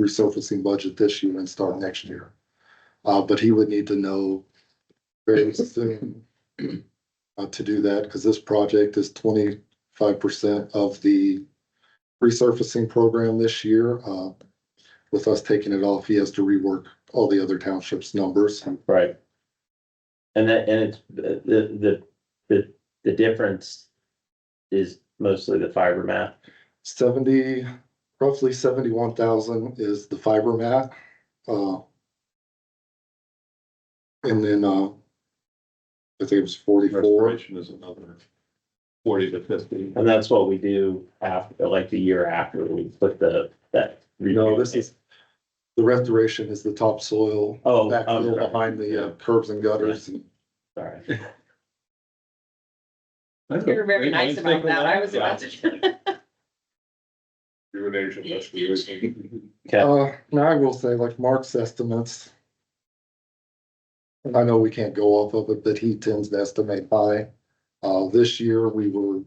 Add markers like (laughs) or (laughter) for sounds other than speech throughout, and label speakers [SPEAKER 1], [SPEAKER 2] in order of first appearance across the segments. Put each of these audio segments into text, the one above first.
[SPEAKER 1] resurfacing budget this year and start next year. Uh, but he would need to know very soon uh, to do that, because this project is twenty-five percent of the resurfacing program this year. Uh, with us taking it off, he has to rework all the other townships' numbers.
[SPEAKER 2] Right. And that, and it's, the, the, the, the difference is mostly the fiber map.
[SPEAKER 1] Seventy, roughly seventy-one thousand is the fiber mat. uh, And then, uh, I think it was forty-four.
[SPEAKER 3] Restoration is another forty to fifty.
[SPEAKER 2] And that's what we do after, like the year after we put the, that.
[SPEAKER 1] No, this is, the restoration is the topsoil
[SPEAKER 2] Oh, I'm
[SPEAKER 1] backfill
[SPEAKER 2] sorry.
[SPEAKER 1] behind the uh, curbs and gutters. and
[SPEAKER 2] sorry.
[SPEAKER 4] You're very nice about that. I was about to.
[SPEAKER 3] (laughs) Your nation, that's what you're saying.
[SPEAKER 2] Yeah.
[SPEAKER 1] Uh, now I will say, like Mark's estimates. And I know we can't go off of it, but he tends to estimate high. Uh, this year, we were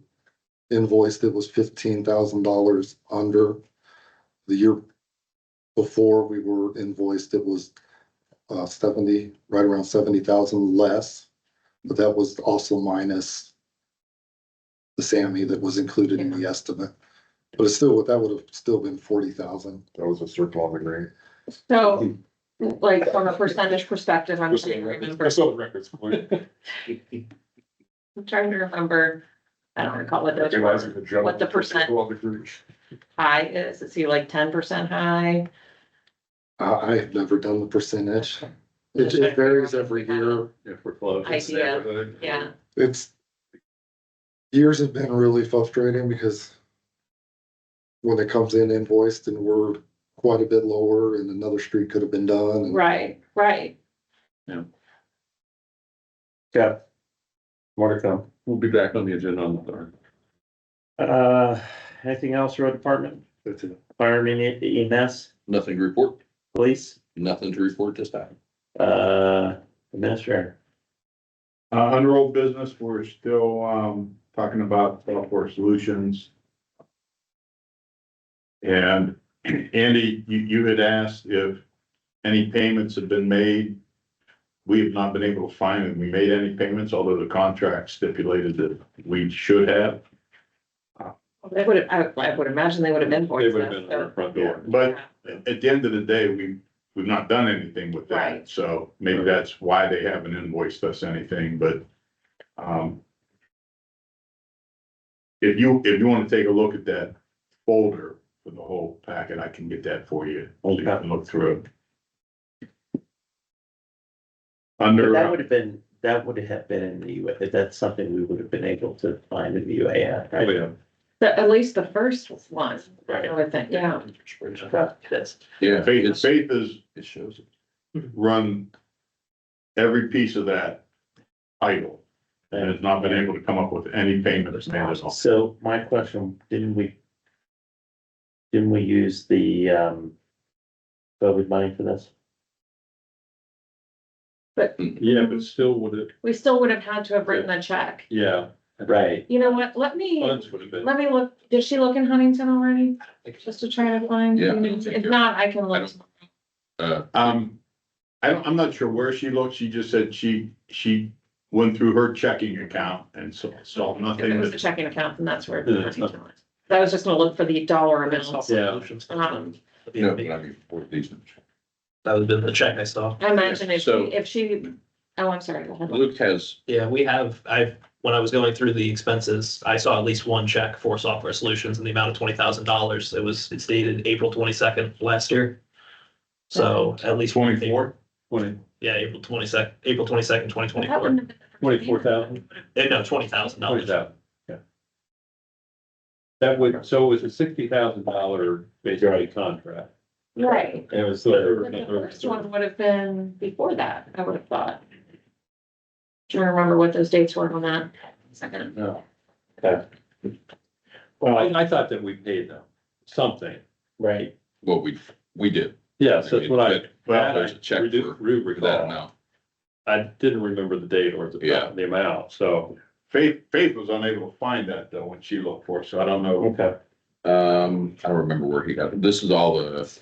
[SPEAKER 1] invoiced, it was fifteen thousand dollars under. The year before, we were invoiced, it was uh seventy, right around seventy thousand less. But that was also minus the SAMI that was included in the estimate. But it's still, that would have still been forty thousand.
[SPEAKER 3] That was a circle on the green.
[SPEAKER 4] So, like, from a percentage perspective, I'm trying to remember,
[SPEAKER 3] I saw the records.
[SPEAKER 4] (laughs)
[SPEAKER 3] What
[SPEAKER 4] I'm trying to remember, I don't recall what those what the percent- high is. Is he like ten percent high?
[SPEAKER 1] I, I have never done the percentage. It it varies every year.
[SPEAKER 3] If we're close.
[SPEAKER 4] Idea, yeah.
[SPEAKER 1] It's. Years have been really frustrating because. When it comes in invoiced and we're quite a bit lower and another street could have been done. and-
[SPEAKER 4] Right, right.
[SPEAKER 2] Yeah. More to come.
[SPEAKER 3] We'll be back on the agenda on the third.
[SPEAKER 2] Uh, anything else, road department, E,
[SPEAKER 1] That's it.
[SPEAKER 2] firemen, EMS,
[SPEAKER 5] Nothing to report,
[SPEAKER 2] police,
[SPEAKER 5] nothing to report this time.
[SPEAKER 2] uh, administrator?
[SPEAKER 6] Uh, under old business, we're still, um, talking about software solutions. And (clears throat) Andy, you, you had asked if any payments have been made. We have not been able to find that we made any payments, although the contract stipulated that we should have.
[SPEAKER 4] They would have, I, I would imagine they would have
[SPEAKER 3] They
[SPEAKER 4] invoiced
[SPEAKER 3] would have been
[SPEAKER 4] us.
[SPEAKER 3] at our
[SPEAKER 4] so-
[SPEAKER 3] front door.
[SPEAKER 6] But at the end of the day, we, we've not done anything with
[SPEAKER 4] Right.
[SPEAKER 6] that, so maybe that's why they haven't invoiced us anything, but, um. If you, if you wanna take a look at that folder for the whole packet, I can get that for you, so you can look through. it.
[SPEAKER 2] But That
[SPEAKER 6] Under,
[SPEAKER 2] would have been, that would have been in the UA, if that's something we would have been able to find in the UAF.
[SPEAKER 3] Oh, yeah.
[SPEAKER 4] The- At least the first one, I
[SPEAKER 2] Right.
[SPEAKER 4] would think, yeah.
[SPEAKER 2] That's,
[SPEAKER 5] Yeah,
[SPEAKER 6] uh, Faith, Faith is
[SPEAKER 5] it shows.
[SPEAKER 6] run every piece of that idle, and has not been able to come up with any payments made at all.
[SPEAKER 2] So my question, didn't we? Didn't we use the um COVID money for this?
[SPEAKER 3] Yeah, but still would it,
[SPEAKER 4] We still would have had to have written a check.
[SPEAKER 3] yeah.
[SPEAKER 2] Right.
[SPEAKER 4] You know what? Let me,
[SPEAKER 3] Funds would have been.
[SPEAKER 4] let me look. Did she look in Huntington already? Just to try to find.
[SPEAKER 5] Yeah.
[SPEAKER 4] If not, I can look.
[SPEAKER 5] Uh,
[SPEAKER 6] Um, I don't, I'm not sure where she looked. She just said she, she went through her checking account and saw, saw
[SPEAKER 4] If it
[SPEAKER 6] nothing
[SPEAKER 4] was a
[SPEAKER 6] that.
[SPEAKER 4] checking account, then that's where.
[SPEAKER 3] Yeah, it's not-
[SPEAKER 4] Huntington was. I was just gonna look for the dollar amount.
[SPEAKER 2] Yeah.
[SPEAKER 4] Um,
[SPEAKER 5] no, but I mean, for these.
[SPEAKER 7] That would have been the check I saw.
[SPEAKER 4] I imagine if she,
[SPEAKER 5] So-
[SPEAKER 4] if she, oh, I'm sorry. go ahead.
[SPEAKER 5] Luke has
[SPEAKER 7] Yeah, we have, I've, when I was going through the expenses, I saw at least one check for software solutions in the amount of twenty thousand dollars. It was, it's dated April twenty-second last year. So at least. one thing-
[SPEAKER 3] Twenty,
[SPEAKER 7] Yeah, April twenty-second, April twenty-second, twenty
[SPEAKER 4] That
[SPEAKER 7] twenty-four. Eh,
[SPEAKER 4] wouldn't have been the first
[SPEAKER 3] twenty-four
[SPEAKER 4] payment.
[SPEAKER 3] thousand.
[SPEAKER 7] No, twenty thousand
[SPEAKER 3] Twenty
[SPEAKER 7] dollars.
[SPEAKER 3] thousand, yeah. That would, so it was a sixty thousand dollar basically contract.
[SPEAKER 4] Right.
[SPEAKER 3] And it was.
[SPEAKER 4] But The first one would have been before that, I would have thought. Trying to remember what those dates were on that second.
[SPEAKER 3] No. Okay. Well, I, I thought that we paid them something.
[SPEAKER 2] Right.
[SPEAKER 5] Well, we, we did.
[SPEAKER 3] Yes, that's what I.
[SPEAKER 5] Well,
[SPEAKER 3] that
[SPEAKER 5] there's
[SPEAKER 3] I
[SPEAKER 5] a check
[SPEAKER 3] do-
[SPEAKER 5] for
[SPEAKER 3] do
[SPEAKER 5] for that
[SPEAKER 3] recall.
[SPEAKER 5] amount.
[SPEAKER 3] I didn't remember the date or the,
[SPEAKER 5] Yeah.
[SPEAKER 3] the amount, so.
[SPEAKER 6] Faith, Faith was unable to find that though when she looked for, it, so I don't know.
[SPEAKER 5] Um, I don't remember where he got it. This is all the